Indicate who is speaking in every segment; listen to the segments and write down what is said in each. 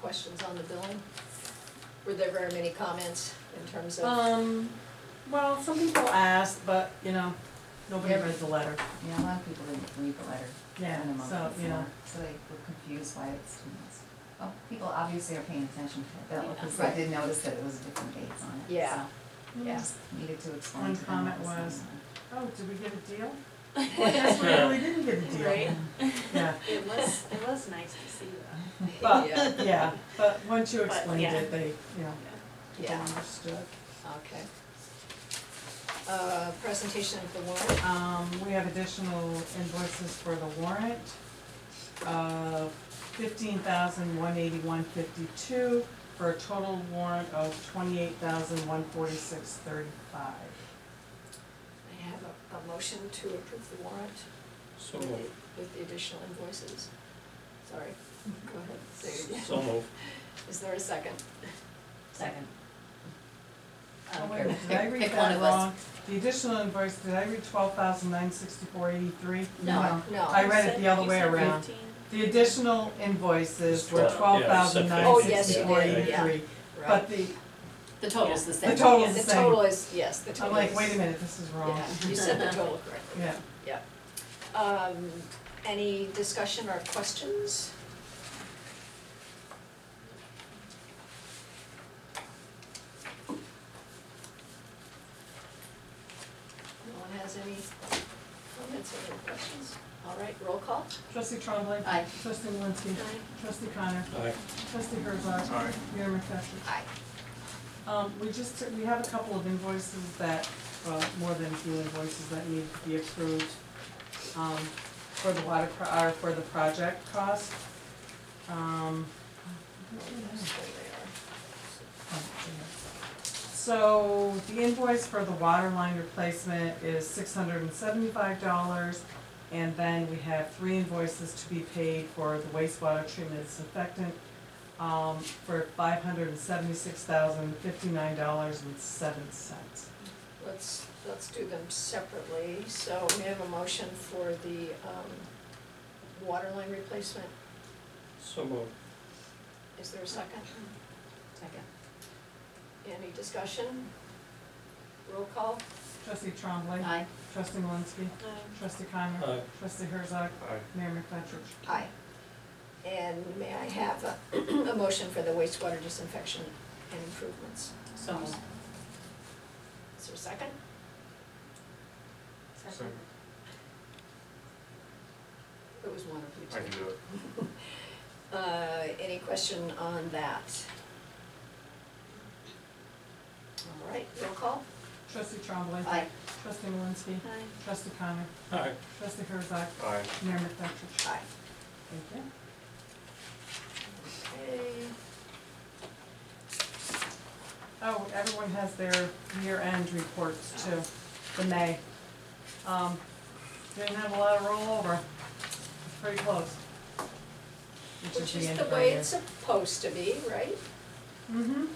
Speaker 1: questions on the billing? Were there very many comments in terms of,
Speaker 2: Um, well, some people asked, but, you know, nobody
Speaker 1: Yeah.
Speaker 2: read the letter.
Speaker 3: Yeah, a lot of people didn't read the letter.
Speaker 2: Yeah,
Speaker 3: when the month
Speaker 2: so,
Speaker 3: was
Speaker 2: you know,
Speaker 3: out, So they were confused why it's two months. Well, people obviously are paying attention to the bill,
Speaker 1: Yeah.
Speaker 3: because
Speaker 1: Right.
Speaker 3: they did notice that it was different dates on it, so.
Speaker 1: Yeah.
Speaker 3: I
Speaker 1: yeah,
Speaker 3: just Needed to explain
Speaker 2: One
Speaker 3: to them.
Speaker 2: comment
Speaker 3: what
Speaker 2: was-
Speaker 3: going on.
Speaker 2: oh, did we get a deal? Yes, we really didn't get a deal.
Speaker 4: Right.
Speaker 2: Yeah,
Speaker 4: It was, it was nice to see that.
Speaker 2: but,
Speaker 1: Yeah.
Speaker 2: yeah, but once you
Speaker 4: But,
Speaker 2: explained
Speaker 4: yeah.
Speaker 2: it, they, you know, they
Speaker 1: yeah,
Speaker 2: understood.
Speaker 1: okay. Uh, presentation of the warrant,
Speaker 2: Um, we have additional invoices for the warrant of fifteen thousand one eighty-one fifty-two for a total warrant of twenty-eight thousand one forty-six thirty-five.
Speaker 1: I have a, a motion to approve the warrant
Speaker 5: So
Speaker 1: with the,
Speaker 5: moved,
Speaker 1: with the additional invoices. Sorry,
Speaker 2: Mm-hmm.
Speaker 1: go ahead, say it again.
Speaker 5: so moved.
Speaker 1: Is there a second?
Speaker 3: Second.
Speaker 2: Oh,
Speaker 1: Um,
Speaker 2: wait, a minute, did I
Speaker 1: pick-
Speaker 2: read
Speaker 1: pick one
Speaker 2: that
Speaker 1: of us.
Speaker 2: wrong? The additional invoice, did I read twelve thousand nine sixty-four eighty-three?
Speaker 1: No,
Speaker 2: I
Speaker 1: no,
Speaker 2: read it the other way around. The additional invoices were twelve thousand nine
Speaker 1: yeah, it's
Speaker 2: sixty-four
Speaker 1: separate. Oh, yes, you did,
Speaker 2: eighty-three.
Speaker 1: yeah. right,
Speaker 2: But the,
Speaker 3: The total's the
Speaker 2: same. total's
Speaker 1: the
Speaker 2: same.
Speaker 1: total is, yes, the
Speaker 2: I'm
Speaker 1: total is.
Speaker 2: like, wait a minute, this is wrong.
Speaker 1: Yeah, you said the total correctly.
Speaker 2: Yeah,
Speaker 1: Um, any discussion or questions? No one has any comments or any questions? All right, roll call.
Speaker 2: trustee Trombley.
Speaker 1: Aye.
Speaker 2: Trustee Malinsky. Trustee Connor.
Speaker 5: Aye.
Speaker 2: Trustee Herzog.
Speaker 5: Aye.
Speaker 2: Mayor McFetrich.
Speaker 1: Aye.
Speaker 2: Um, we just, we have a couple of invoices that, uh, more than a few invoices that need to be approved, um, for the water, pro- uh, for the project cost. Um, so the invoice for the water line replacement is six hundred and seventy-five dollars. And then we have three invoices to be paid for the wastewater treatment disinfectant, um, for five hundred and seventy-six thousand, fifty-nine dollars and seven cents.
Speaker 1: Let's, let's do them separately. So we have a motion for the, um, water line replacement.
Speaker 5: So moved.
Speaker 1: Is there a second?
Speaker 3: Second.
Speaker 1: Any discussion? Roll call?
Speaker 2: Trustee Trombley.
Speaker 3: Aye.
Speaker 2: Trustee Malinsky. Trustee Connor.
Speaker 5: Aye.
Speaker 2: Trustee Herzog.
Speaker 5: Aye.
Speaker 2: Mayor McFetrich.
Speaker 1: Aye. And may I have a, a motion for the wastewater disinfection and improvements?
Speaker 3: So moved.
Speaker 1: Is there a second?
Speaker 5: Second.
Speaker 1: It was one of you two.
Speaker 6: I can do it.
Speaker 1: Uh, any question on that? All right, roll call?
Speaker 2: Trustee Trombley.
Speaker 1: Aye.
Speaker 2: Trustee Malinsky.
Speaker 4: Hi.
Speaker 2: Trustee Connor.
Speaker 5: Aye.
Speaker 2: Trustee Herzog.
Speaker 6: Aye.
Speaker 2: Mayor McFetrich.
Speaker 1: Aye.
Speaker 2: Thank you.
Speaker 1: Okay,
Speaker 2: Oh, everyone has their year-end reports too, the May. Um, didn't have a lot of rollover, it's pretty close.
Speaker 1: which is
Speaker 2: end
Speaker 1: the
Speaker 2: of our
Speaker 1: way
Speaker 2: year.
Speaker 1: it's supposed to be, right?
Speaker 2: Mhm.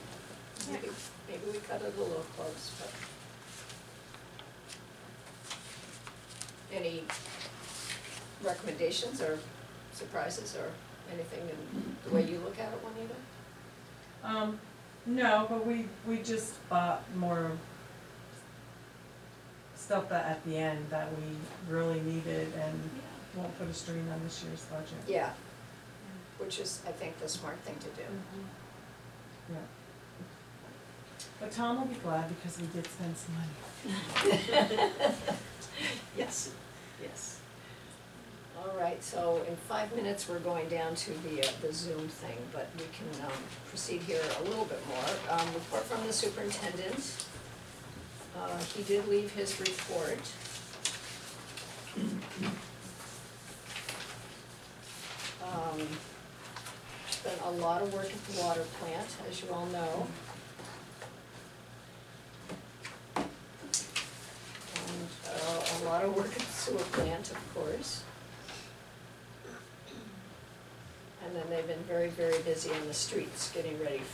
Speaker 1: Maybe, maybe we cut it a little close, but. Any recommendations or surprises or anything in the way you look at it, Juanita?
Speaker 2: Um, no, but we, we just bought more stuff that at the end that we really needed and won't put a strain on this year's budget.
Speaker 1: Yeah, which is, I think, the smart thing to do.
Speaker 2: But Tom will be glad because we did spend some money.
Speaker 1: Yes, yes. All right, so in five minutes, we're going down to the, uh, the Zoom thing, but we can, um, proceed here a little bit more. Um, report from the superintendent. Uh, he did leave his report. Um, spent a lot of work at the water plant, as you all know. and uh, a lot of work at the sewer plant, of course. And then they've been very, very busy on the streets, getting ready